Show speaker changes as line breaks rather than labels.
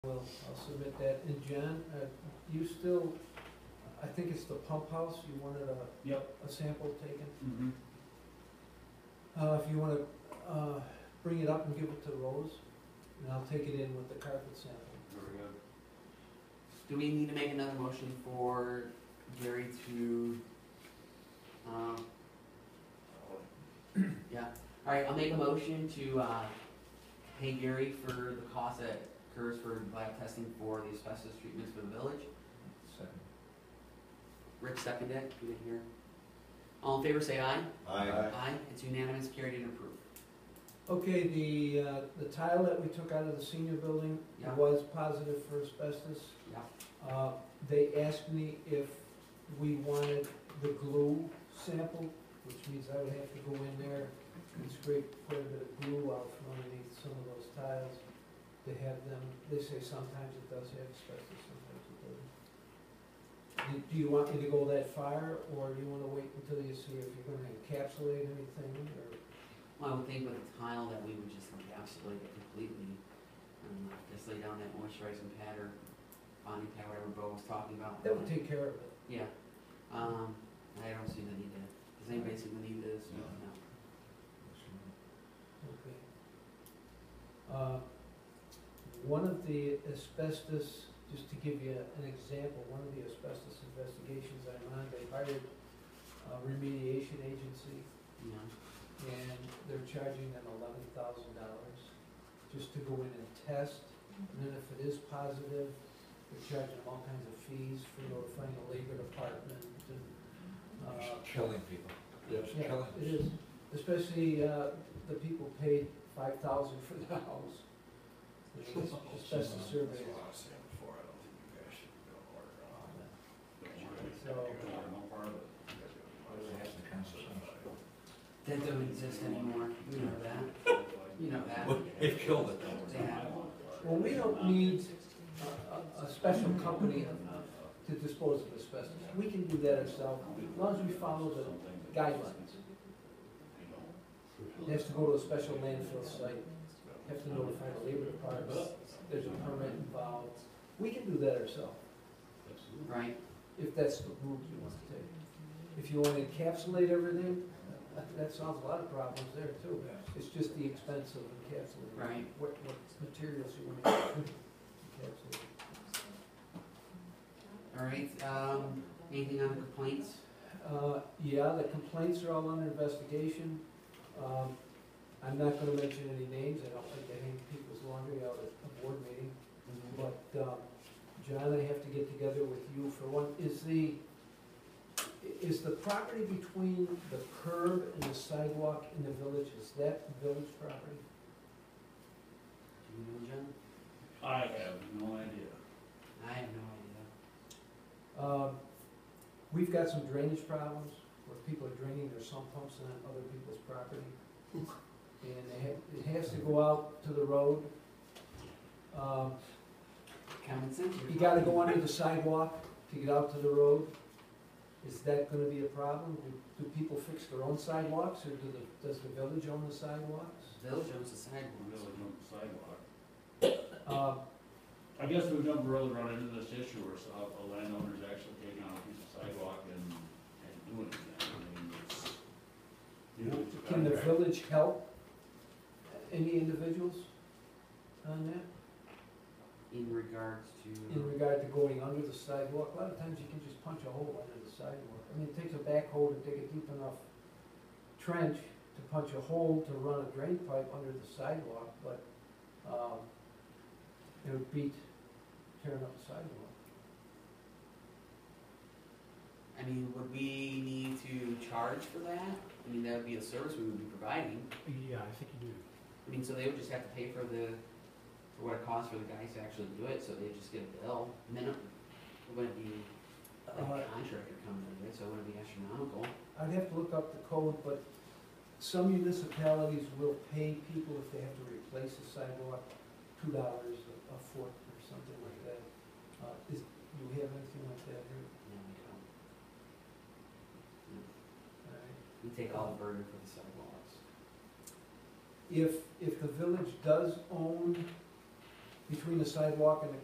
Well, I'll submit that. And John, uh, you still, I think it's the pump house, you wanted a,
Yep.
a sample taken?
Mm-hmm.
Uh, if you wanna, uh, bring it up and give it to Rose, and I'll take it in with the carpet sample.
Very good.
Do we need to make another motion for Gary to, um, yeah, alright, I'll make a motion to, uh, pay Gary for the cost that occurs for lab testing for the asbestos treatments for the village.
Second.
Rick seconded it, you didn't hear. All in favor, say aye.
Aye.
Aye, it's unanimous, carried and approved.
Okay, the, uh, the tile that we took out of the senior building
Yeah.
was positive for asbestos.
Yeah,
Uh, They asked me if we wanted the glue sample, which means I would have to go in there and scrape quite a bit of glue out from underneath some of those tiles to have them, they say sometimes it does have asbestos, sometimes it doesn't. Do- Do you want me to go that far, or do you wanna wait until you see if you're gonna encapsulate anything, or?
well, I would think with a tile that we would just encapsulate it completely, and uh, just lay down that moisturizing pad or bonding pad, whatever Bo was talking about.
That would take care of it.
Yeah, um, I don't see the need to, does anybody see the need to this?
No.
Okay. Uh, One of the asbestos, just to give you an example, one of the asbestos investigations I'm on, they hired a remediation agency,
No,
and they're charging them eleven thousand dollars just to go in and test, and then if it is positive, they're charging them all kinds of fees for notifying the labor department and, uh,
Killing people. It's
yeah,
killing
it is, especially, uh, the people paid five thousand for the house. You know, it's Just a
That's
survey,
what I was saying before, I don't think you guys should go order on that.
so,
that doesn't exist anymore, you know that, you know that.
They've killed it
Yeah.
well, we don't need a, a, a special company to dispose of asbestos. We can do that ourselves, as long as we follow the guidelines. It has to go to a special landfill site, have to notify the labor department, there's a permit involved. We can do that ourselves,
Right,
if that's the route you want to take. If you want to encapsulate everything, that solves a lot of problems there too. It's just the expense of encapsulating.
Right.
What, what materials you want to encapsulate.
alright, um, anything on complaints?
Uh, yeah, the complaints are all under investigation. Um, I'm not gonna mention any names, I don't like to hang people's laundry out at a board meeting, but, um, John, I have to get together with you for one, is the, i- is the property between the curb and the sidewalk in the village, is that village property?
Do you know, John?
I have no idea.
I have no
Um, we've got some drainage problems, where people are draining their sump pumps on other people's property. And they have, it has to go out to the road. Um,
idea, common sense. you're
you gotta
talking.
go under the sidewalk to get out to the road. Is that gonna be a problem? Do, do people fix their own sidewalks, or do the, does the village own the sidewalks?
Village owns the sidewalks.
Really on the sidewalk.
Um,
I guess we've never really run into this issue where so- a landowner's actually taking out a piece of sidewalk and, and doing it. I mean, it's- you know, it's a
Can the
contract.
village help any individuals on that?
In regards to.
in regard to going under the sidewalk, a lot of times you can just punch a hole under the sidewalk. I mean, it takes a backhoe to dig a deep enough trench to punch a hole to run a drain pipe under the sidewalk, but, um, it would beat tearing up the sidewalk.
I mean, would we need to charge for that? I mean, that would be a service we would be providing.
Yeah, I think you do.
I mean, so they would just have to pay for the, for what it costs for the guys to actually do it, so they just get a bill, minimum. It wouldn't be like a
Uh,
contractor coming in, so it wouldn't be astronomical.
I'd have to look up the code, but some municipalities will pay people if they have to replace a sidewalk, two dollars a foot or something like that. Uh, is, do we have anything like that here?
No, we don't.
All right.
We take all the burden for the sidewalks.
if, if the village does own between the sidewalk and the